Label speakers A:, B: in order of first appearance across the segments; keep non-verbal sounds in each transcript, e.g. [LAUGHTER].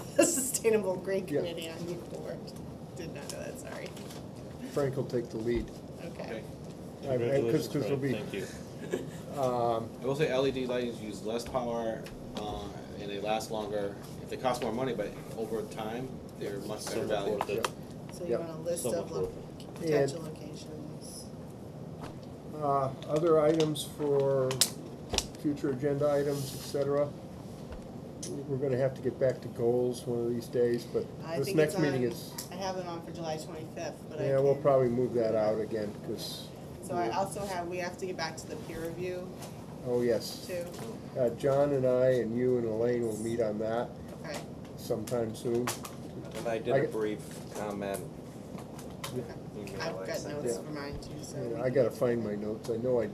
A: [LAUGHS] Sustainable Grade
B: Yeah.
A: Committee on Youth Board. Did not know that, sorry.
B: Frank will take the lead.
A: Okay.
C: Okay.
B: All right, 'cause- 'cause
C: Congratulations,
B: there'll
C: Fred.
B: be-
C: Thank you.
B: Um,
C: I will say LED lightings use less power, uh, and they last longer. They cost more money, but over time, they're much better
D: Somewhat
C: value.
D: worth
B: yeah.
D: it.
A: So you
B: Yep.
A: want a list
D: Somewhat
A: of lo-
D: worth
A: potential locations?
B: Uh, Other items for future agenda items, et cetera. We're gonna have to get back to goals one of these days, but
A: I
B: this
A: think
B: next
A: it's
B: meeting
A: on-
B: is,
A: I have it on for July twenty-fifth, but I
B: yeah, we'll
A: can-
B: probably move that out again, because,
A: So I also have, we have to get back to the peer review
B: oh, yes.
A: too.
B: Uh, John and I and you and Elaine will meet on that
A: Okay,
B: sometime soon.
D: And I did
B: I
D: a
B: get-
D: brief comment
B: Yeah.
D: email
A: I've
D: I
A: got
D: sent
A: notes
B: Yeah.
A: for mine too, so.
B: And
A: we
B: I
A: can-
B: gotta find my notes, I know I,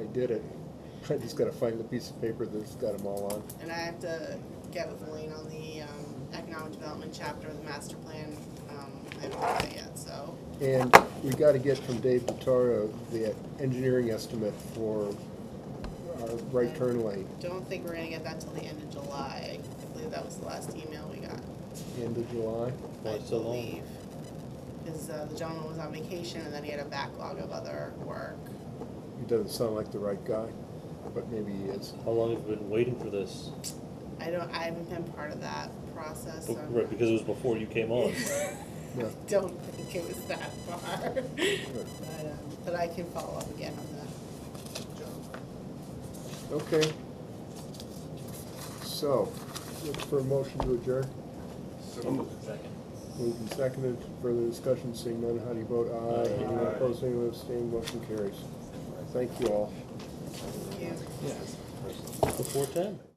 B: I did it, [LAUGHS] I just gotta find the piece of paper that's got them all on.
A: And I have to get with Elaine on the um, economic development chapter of the master plan. Um, I haven't done that yet, so.
B: And we gotta get from Dave Vitaro the engineering estimate for our right turn lane,
A: Don't think we're gonna get that till the end of July. I believe that was the last email we got.
B: end of July.
A: I
D: Why so long?
A: believe. Because uh, the gentleman was on vacation and then he had a backlog of other work.
B: He doesn't sound like the right guy, but maybe he is.
D: How long have you been waiting for this?
A: I don't, I haven't been part of that process, so. I'm
D: Right, because it was before you came on.
A: [LAUGHS]
B: Yeah.
A: I don't think it was that far. But, um, but I can follow up again on that.
B: Okay. So, look for a motion to adjourn. Moved and seconded, further discussion, seeing none, how do you vote? Aye. Anyone opposed, anyone abstaining, motion carries. Thank you all.
A: Thank you.
D: Before ten.